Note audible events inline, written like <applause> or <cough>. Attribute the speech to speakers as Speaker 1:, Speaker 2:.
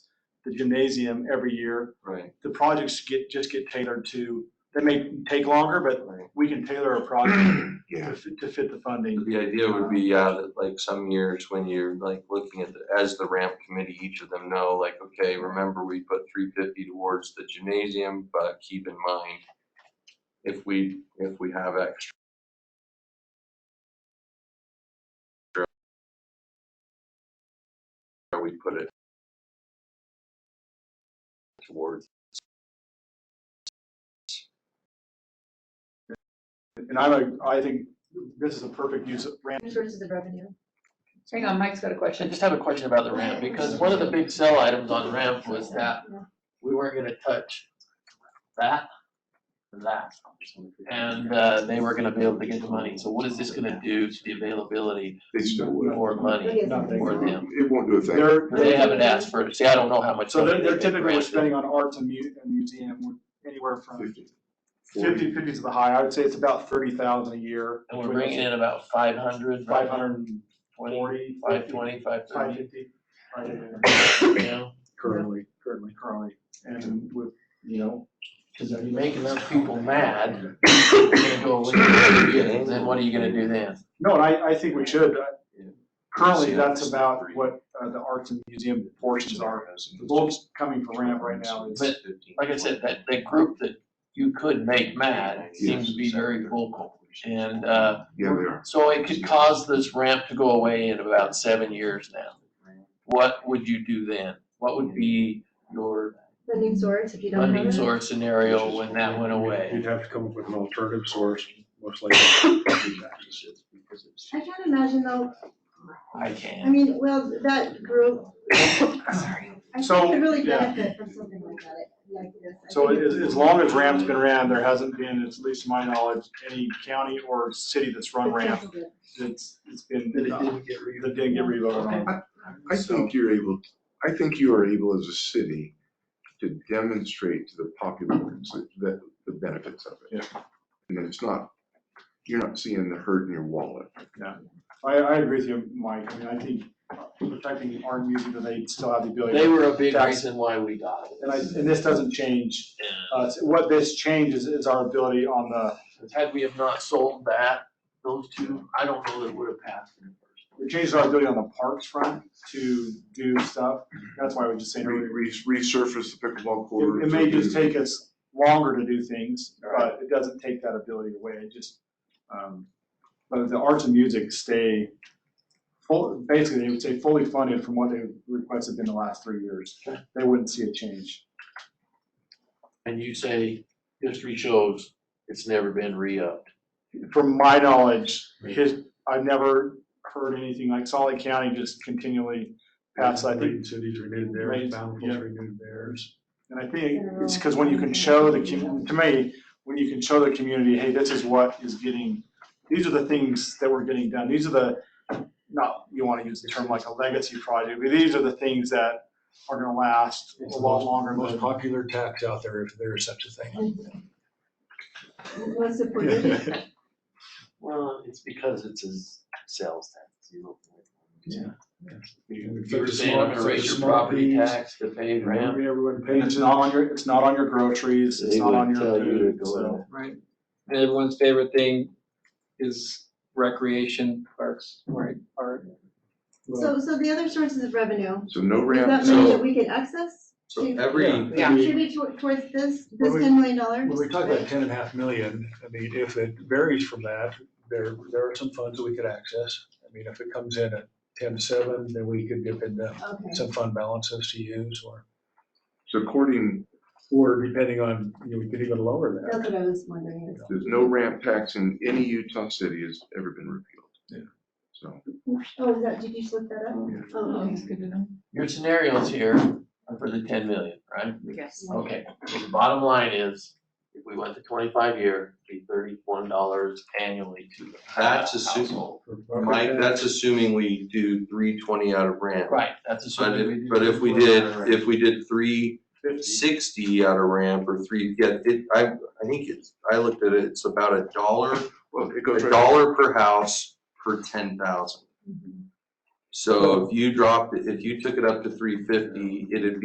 Speaker 1: the gymnasium every year.
Speaker 2: Right,
Speaker 1: The projects get, just get tailored to, they may take longer, but
Speaker 2: right.
Speaker 1: we can tailor a project
Speaker 3: Yeah.
Speaker 1: to fit, to fit the funding.
Speaker 2: The idea would be, yeah, that like some years when you're like looking at, the as the ramp committee, each of them know, like, okay, remember we put three fifty towards the gymnasium, but keep in mind, if we, if we have extra. Or we put it towards,
Speaker 1: And I'm a, I think this is a perfect use of ramp.
Speaker 4: Sources of revenue.
Speaker 5: Hang on, Mike's got a
Speaker 6: I
Speaker 5: question.
Speaker 6: just have a question about the ramp, because one of the big sell items on ramp was that we weren't gonna touch that, and that, and, uh, they were gonna be able to get the money, so what is this gonna do to the availability
Speaker 3: They still would.
Speaker 6: for money for them?
Speaker 3: It won't do a thing.
Speaker 1: They're,
Speaker 6: They haven't asked for it, see, I don't know how much.
Speaker 1: so they're,
Speaker 6: money
Speaker 1: they're
Speaker 6: they
Speaker 1: typically
Speaker 6: granted.
Speaker 1: spending on arts and mu- and museum with anywhere from
Speaker 3: 50, 40.
Speaker 1: fifty, fifty to the high. I would say it's about thirty thousand a year.
Speaker 6: And we're bringing in about five hundred.
Speaker 1: Five hundred and
Speaker 6: Twenty,
Speaker 1: forty.
Speaker 6: five twenty, five
Speaker 1: Five
Speaker 6: thirty,
Speaker 1: fifty. right in there.
Speaker 6: you know,
Speaker 1: Currently, currently, currently, and with, you know,
Speaker 6: cause if you're making those people mad, you're gonna go away, and then what are you gonna do then?
Speaker 1: no, and I, I think we should. uh,
Speaker 2: Yeah.
Speaker 1: Currently,
Speaker 2: Yeah.
Speaker 1: that's about what uh, the arts and museum portions are. The bulk's coming from ramp right now. It's-
Speaker 6: But, like I said, that, that group that you could make mad seems to be very vocal. And, uh,
Speaker 3: Yeah, they are.
Speaker 6: so it could cause this ramp to go away in about seven years now. What would you do then? What would be your
Speaker 4: Funding source, if you don't have
Speaker 6: funding
Speaker 4: it.
Speaker 6: source scenario when that went away?
Speaker 7: You'd have to come up with an alternative source, most likely.
Speaker 4: I can't imagine though,
Speaker 6: I
Speaker 4: I
Speaker 6: can.
Speaker 4: mean, well, that group, <coughs> sorry, I
Speaker 1: So,
Speaker 4: think could really
Speaker 1: yeah.
Speaker 4: benefit from something like that, like this. I
Speaker 1: So
Speaker 4: think
Speaker 1: as, as long as ramp's been ran, there hasn't been, at least to my knowledge, any county or city that's run ramp
Speaker 4: accessible.
Speaker 1: that's, it's been, that didn't get revoted on.
Speaker 3: I
Speaker 1: So-
Speaker 3: think you're able, I think you are able as a city to demonstrate to the populace that, the benefits of it. And that it's not, you're not seeing the hurt in your wallet.
Speaker 1: I, I agree with you, Mike. I mean, I think protecting the art music, that they still have the ability.
Speaker 6: They were a big
Speaker 1: Tax-
Speaker 6: reason why we got it.
Speaker 1: And I, and this doesn't change, uh, it's- what this changes is our ability on the,
Speaker 6: And Had we have not sold that, those two, I don't know that it would have passed in the first.
Speaker 1: it changes our ability on the parks front to do stuff. That's why we're just
Speaker 3: Re-
Speaker 1: saying, it,
Speaker 3: re- Resurface the pickleball court.
Speaker 1: it may just take us longer to do things, but it doesn't take that ability away, it just, um, but the arts and music stay full, basically, they would stay fully funded from what they requested in the last three years. They wouldn't see a change.
Speaker 6: And you say, history shows it's never been re-upped.
Speaker 1: From my knowledge, his, I've never heard anything like Solid County just continually pass, I think,
Speaker 7: Lake Cities renewed theirs,
Speaker 1: Right, yeah.
Speaker 7: Bountiful's renewed theirs.
Speaker 1: And I think it's because when you can show the, commu- to me, when you can show the community, hey, this is what is getting, these are the things that we're getting done, these are the, not, you want to use the term like a legacy project, but these are the things that are gonna last a lot longer.
Speaker 7: Most
Speaker 1: than-
Speaker 7: popular tax out there, if there is such a thing.
Speaker 4: Was supported.
Speaker 6: Well, it's because it's a s- sales tax. you know.
Speaker 7: If
Speaker 6: You were
Speaker 7: it's
Speaker 6: saying I'm gonna
Speaker 7: small-
Speaker 6: raise your
Speaker 7: small
Speaker 6: property
Speaker 7: fees,
Speaker 6: tax to pay rent.
Speaker 1: Everyone pays, it's not on your, it's not on your groceries, it's
Speaker 6: They
Speaker 1: not on
Speaker 6: would
Speaker 1: your
Speaker 6: tell you to
Speaker 1: food,
Speaker 6: go
Speaker 1: so.
Speaker 8: Right. And everyone's favorite thing is recreation parks, right? Or
Speaker 4: So, so the other sources of revenue,
Speaker 3: So no
Speaker 4: is
Speaker 3: ramp,
Speaker 4: that money
Speaker 3: so
Speaker 4: that we could access?
Speaker 2: so every,
Speaker 8: Yeah.
Speaker 4: Contribute to- towards this, this
Speaker 7: Well, we-
Speaker 4: ten million dollars?
Speaker 7: When we talk about ten and a half million, I mean, if it varies from that, there, there are some funds that we could access. I mean, if it comes in at ten-seven, then we could dip into
Speaker 4: Okay,
Speaker 7: some fund balances to use or,
Speaker 3: so according,
Speaker 7: or depending on, you know, we could even lower that.
Speaker 4: that's what I was wondering.
Speaker 3: there's no ramp tax in any Utah city has ever been repealed.
Speaker 1: Yeah.
Speaker 3: So.
Speaker 4: Oh, is that, did you just look that up? Oh, okay.
Speaker 8: good to know.
Speaker 6: Your scenarios here are for the ten million, right?
Speaker 8: Yes.
Speaker 6: Okay, so the bottom line is, if we went to twenty-five year, it'd be thirty-one dollars annually to the
Speaker 2: That's assuming-
Speaker 6: household.
Speaker 2: Mike, that's assuming we do three twenty out of ramp.
Speaker 6: Right, that's
Speaker 2: But
Speaker 6: assuming.
Speaker 2: if, but if we did, if we did three sixty out of ramp or three, yeah, it, I, I think it's, I looked at it, it's about a dollar,
Speaker 3: Well, it
Speaker 2: a
Speaker 3: goes right.
Speaker 2: dollar per house per ten
Speaker 6: Mm-hmm.
Speaker 2: thousand. So if you dropped, it- if you took it up to three fifty, it'd